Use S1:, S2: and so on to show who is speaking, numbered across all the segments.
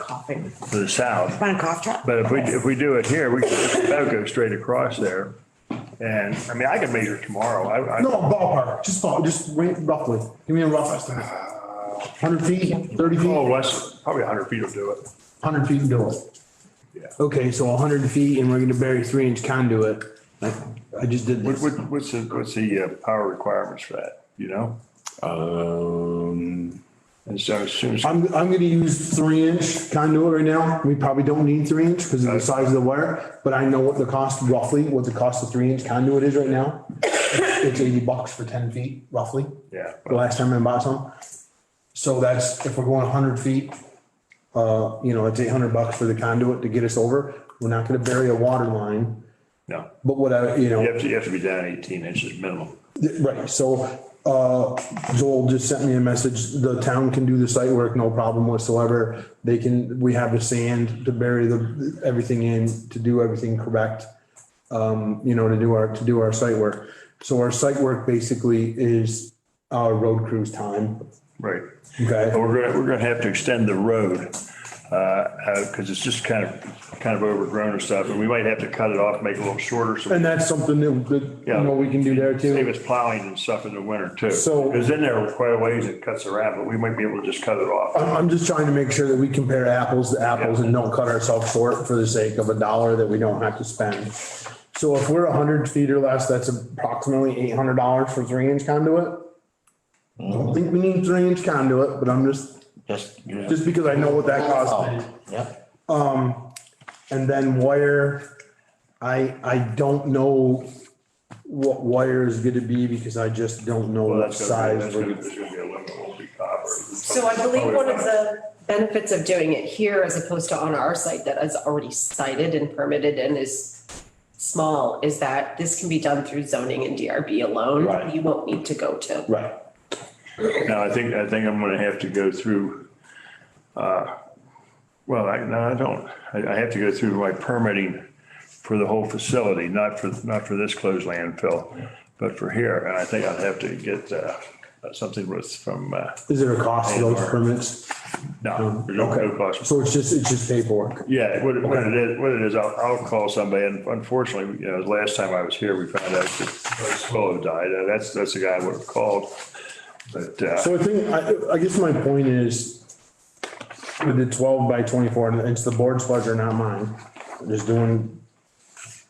S1: coughing.
S2: to the south.
S1: Want a cough drop?
S2: But if we, if we do it here, we could that'll go straight across there. And, I mean, I could measure tomorrow. I,
S3: No,
S2: I,
S3: ballpark, just ball, just ra- roughly. Give me a rough estimate. Hundred feet, thirty
S2: oh,
S3: feet,
S2: less, probably hundred feet will do it.
S3: hundred feet and do it.
S4: Okay, so hundred feet and we're gonna bury three inch conduit. I, I just did
S2: What,
S4: this.
S2: what, what's the, what's the uh, power requirements for that, you know?
S3: Um.
S2: And so as soon as,
S3: I'm, I'm gonna use three inch conduit right now. We probably don't need three inch because of the size of the wire, but I know what the cost roughly, what the cost of three inch conduit is right now. It's eighty bucks for ten feet roughly.
S2: yeah,
S3: The last time I bought some. So that's, if we're going hundred feet, uh, you know, it's eight hundred bucks for the conduit to get us over. We're not gonna bury a water line,
S2: no,
S3: but what I, you know.
S2: you have to, you have to be down eighteen inches minimum.
S3: Right, so, uh, Joel just sent me a message, the town can do the site work, no problem whatsoever. They can, we have the sand to bury the, everything in, to do everything correct. Um, you know, to do our, to do our site work. So our site work basically is, uh, road crew's time,
S2: Right.
S3: okay?
S2: And we're gonna, we're gonna have to extend the road, uh, uh, cause it's just kind of, kind of overgrown and stuff. And we might have to cut it off, make it a little shorter so we
S3: And that's something that, that, you know, we can do there
S2: Save
S3: too.
S2: us plowing and stuff in the winter too.
S3: So-
S2: Because in there, quite a ways it cuts around, but we might be able to just cut it off.
S3: I'm, I'm just trying to make sure that we compare apples to apples and don't cut ourselves short for the sake of a dollar that we don't have to spend. So if we're hundred feet or less, that's approximately eight hundred dollars for three inch conduit. Don't
S2: Mm-hmm.
S3: think we need three inch conduit, but I'm just,
S5: Just, you know.
S3: just because I know what that costs.
S5: Oh, Yep.
S3: And then wire, I, I don't know what wire is gonna be because I just don't know
S2: Well,
S3: what
S2: that's gonna, be-
S3: size.
S2: that's gonna,
S3: we're-
S2: there's gonna be a limit, it won't be copper.
S1: So I believe one of the benefits of doing it here as opposed to on our site that is already cited and permitted and is small is that this can be done through zoning and DRB alone.
S5: Right.
S1: You won't need to go to.
S3: Right.
S2: Now, I think, I think I'm gonna have to go through, uh, well, I, no, I don't. I, I have to go through my permitting for the whole facility, not for, not for this closed landfill, but for here. And I think I'd have to get, uh, something with, from, uh,
S3: Is there a cost to those permits?
S2: no, there's no- no cost.
S3: So it's just, it's just paperwork.
S2: Yeah, what it, what it is, what it is, I'll, I'll call somebody, and unfortunately, you know, last time I was here, we found out that Swallow died, Uh, that's, that's the guy I would have called. But, uh,
S3: So I think, I, I guess my point is with the twelve by twenty-four, and it's the board's pleasure, not mine. Just doing,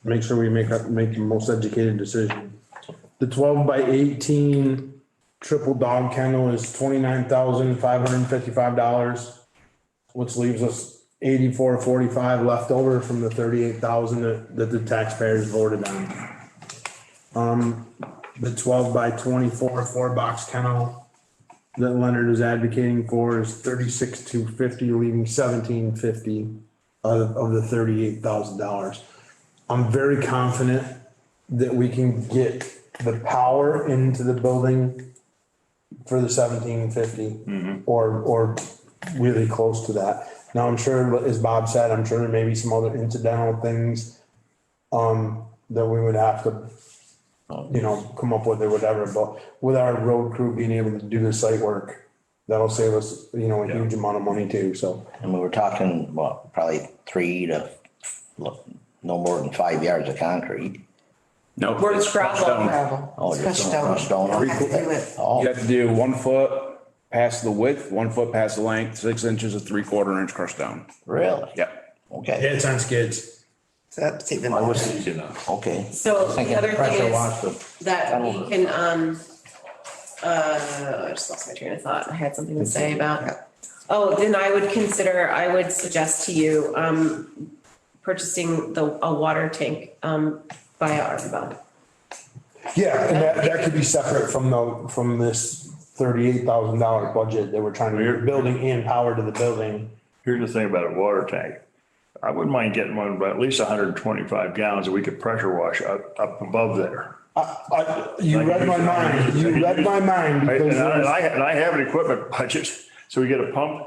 S3: make sure we make, up- make the most educated decision. The twelve by eighteen triple dog kennel is twenty-nine thousand five hundred and fifty-five dollars. Which leaves us eighty-four forty-five left over from the thirty-eight thousand that, that the taxpayers voted on. Um, the twelve by twenty-four four-box kennel that Leonard is advocating for is thirty-six two fifty, leaving seventeen fifty of, of the thirty-eight thousand dollars. I'm very confident that we can get the power into the building for the seventeen fifty or, or really close to that. Now, I'm sure, as Bob said, I'm sure there may be some other incidental things um, that we would have to you know, come up with or whatever, but with our road crew being able to do the site work, that'll save us, you know, a huge amount of money too, so.
S5: And we were talking, what, probably three to, look, no more than five yards of concrete.
S6: No.
S1: We're
S6: it's crushed stone.
S5: Oh, just
S7: Crushed
S5: stone,
S7: stone.
S5: stone.
S7: You have to do it.
S5: Oh,
S6: You have to do one foot past the width, one foot past the length, six inches of three quarter inch crushed stone.
S5: really?
S6: Yep.
S5: Okay,
S3: it's on skids.
S7: So that's even.
S2: I was easy enough.
S5: okay.
S1: So the
S5: Thinking
S1: other
S5: pressure
S1: thing
S5: wash
S1: is
S5: the-
S1: that we
S5: tunnel.
S1: can, um, uh, I just lost my train of thought. I had something to say about. Oh, then I would consider, I would suggest to you, um, purchasing the, a water tank, um, via ARPA. bond.
S3: Yeah, and that, that could be separate from the, from this thirty-eight thousand dollar budget that we're trying to, building and power to the building.
S2: Here's the thing about a water tank. I wouldn't mind getting one, but at least hundred and twenty-five gallons that we could pressure wash up, up above there.
S3: I, you read my mind, you read my mind.
S2: Right,
S3: because
S2: And I, and
S3: there's-
S2: I- and I have an equipment budget, so we get a pump,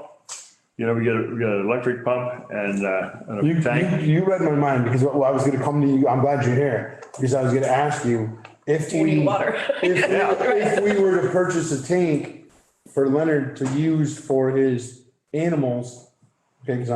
S2: you know, we get, a we get an electric pump and, uh,
S3: You,
S2: and a
S3: you,
S2: tank.
S3: you read my mind because well, I was gonna come to you, I'm glad you're here, because I was gonna ask you if we.
S1: You need water.
S3: If, we- if we were to purchase a tank for Leonard to use for his animals, okay, 'cause I'm